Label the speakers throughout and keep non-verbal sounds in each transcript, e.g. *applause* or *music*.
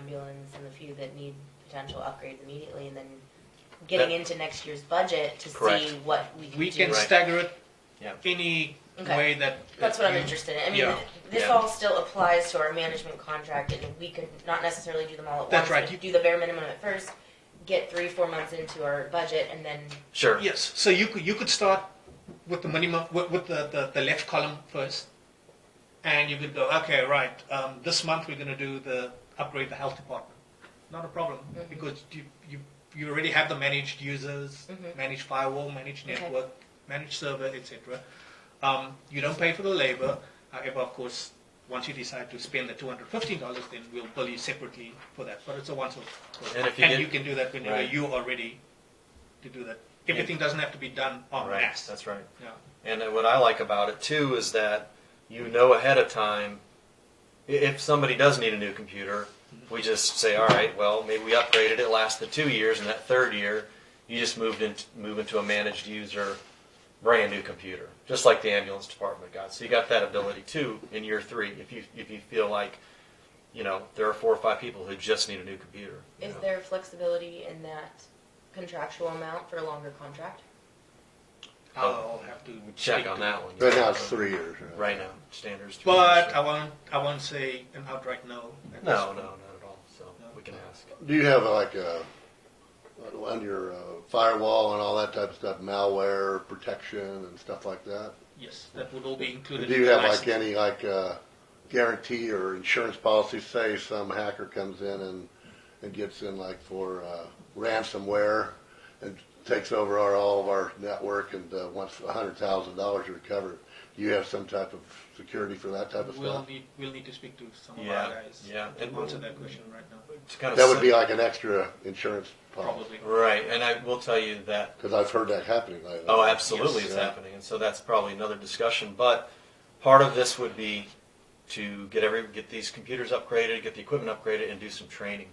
Speaker 1: ambulance and the few that need potential upgrades immediately, and then getting
Speaker 2: That-
Speaker 1: into next year's budget to
Speaker 2: Correct.
Speaker 1: see what we can
Speaker 3: We
Speaker 1: do.
Speaker 3: can
Speaker 2: Right.
Speaker 3: stagger it
Speaker 2: Yeah.
Speaker 3: any
Speaker 1: Okay.
Speaker 3: way that.
Speaker 1: That's what I'm
Speaker 3: you-
Speaker 1: interested in. I mean,
Speaker 3: Yeah.
Speaker 1: this
Speaker 2: Yeah.
Speaker 1: all still applies to our management contract, and we could not necessarily do them all at
Speaker 3: That's
Speaker 1: once.
Speaker 3: right.
Speaker 1: but Do the bare minimum at first, get three, four months into our budget, and then
Speaker 2: Sure.
Speaker 3: Yes, so you could, you could start with the minimum, with, with the, the, the left column first. And you could go, okay, right, um, this month we're gonna do the, upgrade the health department. Not a problem,
Speaker 1: Mhm.
Speaker 3: because you, you, you already have the managed users,
Speaker 1: Mhm.
Speaker 3: managed firewall, managed
Speaker 1: Okay.
Speaker 3: network, managed server, etc. Um, you don't pay for the labor, however, of course, once you decide to spend the two hundred fifteen dollars, then we'll bill you separately for that, but it's a once-off.
Speaker 2: And if you get-
Speaker 3: can do that whenever
Speaker 2: Right.
Speaker 3: you are ready to do that. Everything doesn't have to be done en
Speaker 2: Right.
Speaker 3: masse.
Speaker 2: That's right.
Speaker 3: Yeah.
Speaker 2: And uh, what I like about it too is that you know ahead of time i- if somebody does need a new computer, we just say, all right, well, maybe we upgraded it, lasted two years, and that third year, you just moved into move into a managed user, brand new computer, just like the ambulance department got. So you got that ability too in year three if you if you feel like, you know, there are four or five people who just need a new computer. you
Speaker 1: is
Speaker 2: know.
Speaker 1: there flexibility in that contractual amount for a longer contract?
Speaker 3: I'll have to
Speaker 2: Check
Speaker 3: speak
Speaker 2: on
Speaker 3: to-
Speaker 2: that one.
Speaker 4: Right now it's three years.
Speaker 2: Right now, standards. two years.
Speaker 3: But I won't. I won't say an outright no. at this
Speaker 2: No, no,
Speaker 3: point.
Speaker 2: not at all. So we can ask.
Speaker 4: Do you have like a on your uh, firewall and all that type of stuff, malware protection and stuff like that?
Speaker 3: Yes, that would all be included.
Speaker 4: Do
Speaker 3: in
Speaker 4: you
Speaker 3: the
Speaker 4: have like
Speaker 3: license.
Speaker 4: any like uh, guarantee or insurance policy? Say some hacker comes in and and gets in like for uh, ransomware and takes over our, all of our network and uh, wants a hundred thousand dollars recovered. Do you have some type of security for that type of
Speaker 3: We'll
Speaker 4: stuff?
Speaker 3: need. We'll need to speak to some
Speaker 2: Yeah,
Speaker 3: of our guys.
Speaker 2: yeah,
Speaker 3: To
Speaker 2: and
Speaker 3: answer
Speaker 2: we'll-
Speaker 3: that question right now,
Speaker 2: To kind of
Speaker 4: That would
Speaker 2: set-
Speaker 4: be like an extra insurance policy
Speaker 3: probably.
Speaker 2: right, and I will tell you that.
Speaker 4: because I've heard that happening lately.
Speaker 2: Oh, absolutely,
Speaker 3: Yes.
Speaker 2: it's happening, and so that's probably another discussion. But part of this would be to get every get these computers upgraded, get the equipment upgraded, and do some training,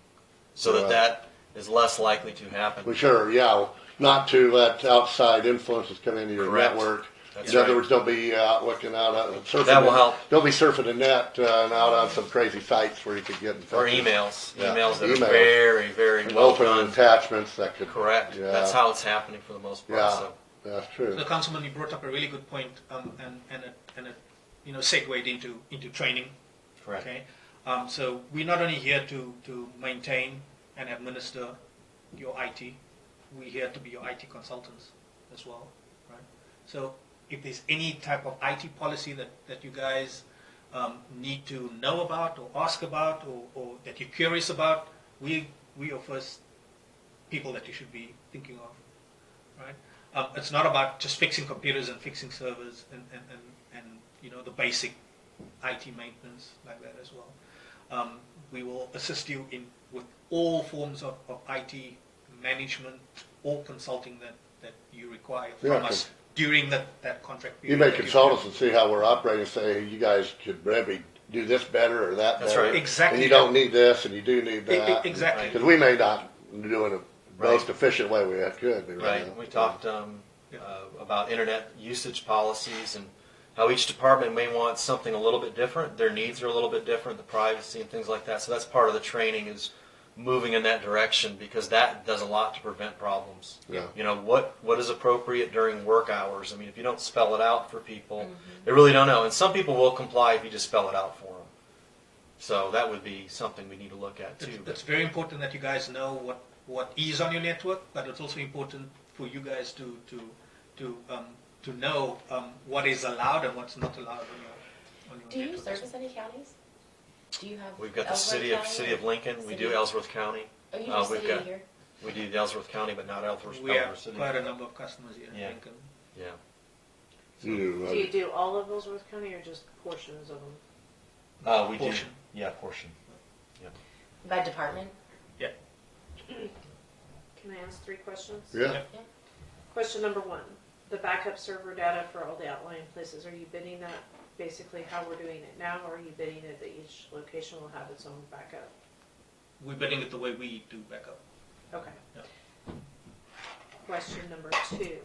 Speaker 2: so that
Speaker 4: Right.
Speaker 2: that is less likely to happen.
Speaker 4: Well, sure, yeah, not to let outside influences come into your
Speaker 2: Correct.
Speaker 4: network.
Speaker 2: That's
Speaker 4: In other
Speaker 2: right.
Speaker 4: words, don't be out looking out, on- surfing.
Speaker 2: That will
Speaker 4: the-
Speaker 2: help.
Speaker 4: Don't be surfing the net uh, and out on some crazy sites where you could get
Speaker 2: or
Speaker 4: infected.
Speaker 2: emails,
Speaker 4: Yeah,
Speaker 2: emails that
Speaker 4: emails.
Speaker 2: are very, very
Speaker 4: And
Speaker 2: well
Speaker 4: open
Speaker 2: done.
Speaker 4: attachments that could.
Speaker 2: Correct.
Speaker 4: Yeah.
Speaker 2: That's how it's happening for the most part.
Speaker 4: Yeah.
Speaker 2: So.
Speaker 4: That's true.
Speaker 2: *laughs*
Speaker 3: The councilman, you brought up a really good point, um, and and it, and it, you know, segued into into training.
Speaker 2: Correct.
Speaker 3: Okay, um, so we're not only here to, to maintain and administer your IT, we're here to be your IT consultants as well, right? So if there's any type of IT policy that, that you guys um, need to know about or ask about or, or that you're curious about, we, we are first people that you should be thinking of, right? Um, it's not about just fixing computers and fixing servers and, and, and, and you know the basic IT maintenance like that as well. Um, we will assist you in with all forms of, of IT management or consulting that, that you require from
Speaker 4: Yeah,
Speaker 3: us during that, that contract
Speaker 4: You
Speaker 3: period.
Speaker 4: may
Speaker 3: that
Speaker 4: consult us and see how we're operating, say, you guys could maybe do this better or that
Speaker 2: That's
Speaker 4: better.
Speaker 2: right.
Speaker 3: Exactly.
Speaker 4: And you don't need this and you do need
Speaker 3: E- e-
Speaker 4: that.
Speaker 3: exactly.
Speaker 4: Because we may not do it the
Speaker 2: Right.
Speaker 4: most efficient way we could be right
Speaker 2: Right,
Speaker 4: now.
Speaker 2: we talked um,
Speaker 3: Yeah.
Speaker 2: uh, about internet usage policies and how each department may want something a little bit different. Their needs are a little bit different, the privacy and things like that. So that's part of the training is moving in that direction because that does a lot to prevent problems.
Speaker 4: Yeah.
Speaker 2: You know what what is appropriate during work hours. I mean, if you don't spell it out for people,
Speaker 1: Mm-hmm.
Speaker 2: they really don't know. And some people will comply if you just spell it out for them. So that would be something we need to look at
Speaker 3: It's,
Speaker 2: too.
Speaker 3: it's very important that you guys know what, what is on your network, but it's also important for you guys to to to um, to know um, what is allowed and what's not allowed on your, on your
Speaker 1: Do you
Speaker 3: network.
Speaker 1: service any counties? Do you have?
Speaker 2: We've got the
Speaker 1: Ellsworth
Speaker 2: city of
Speaker 1: County?
Speaker 2: city of Lincoln. We do
Speaker 1: City.
Speaker 2: Ellsworth County.
Speaker 1: Oh, you
Speaker 2: uh,
Speaker 1: do
Speaker 2: we've
Speaker 1: city
Speaker 2: got-
Speaker 1: here.
Speaker 2: We do Ellsworth County, but not Ellsworth,
Speaker 3: We have
Speaker 2: Ellsworth City.
Speaker 3: quite a number of customers here in
Speaker 2: Yeah.
Speaker 3: Lincoln.
Speaker 2: Yeah.
Speaker 4: You do, uh,
Speaker 5: Do you do all of Ellsworth County or just portions of them?
Speaker 2: Uh, we
Speaker 3: Portion.
Speaker 2: do. Yeah, portion.
Speaker 1: By department?
Speaker 5: Can I ask three questions?
Speaker 4: Yeah.
Speaker 5: Question number one, the backup server data for all the outlying places, are you bidding that basically how we're doing it now? Or are you bidding it that each location will have its own backup?
Speaker 3: We're bidding it the way we do backup.
Speaker 5: Okay.
Speaker 3: Yeah.
Speaker 5: Question number two,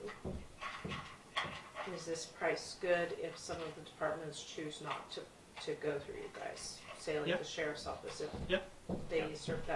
Speaker 5: is this price good if some of the departments choose not to, to go through you guys? Say
Speaker 3: Yeah.
Speaker 5: like the sheriff's office, if
Speaker 3: Yeah.
Speaker 5: they usurp that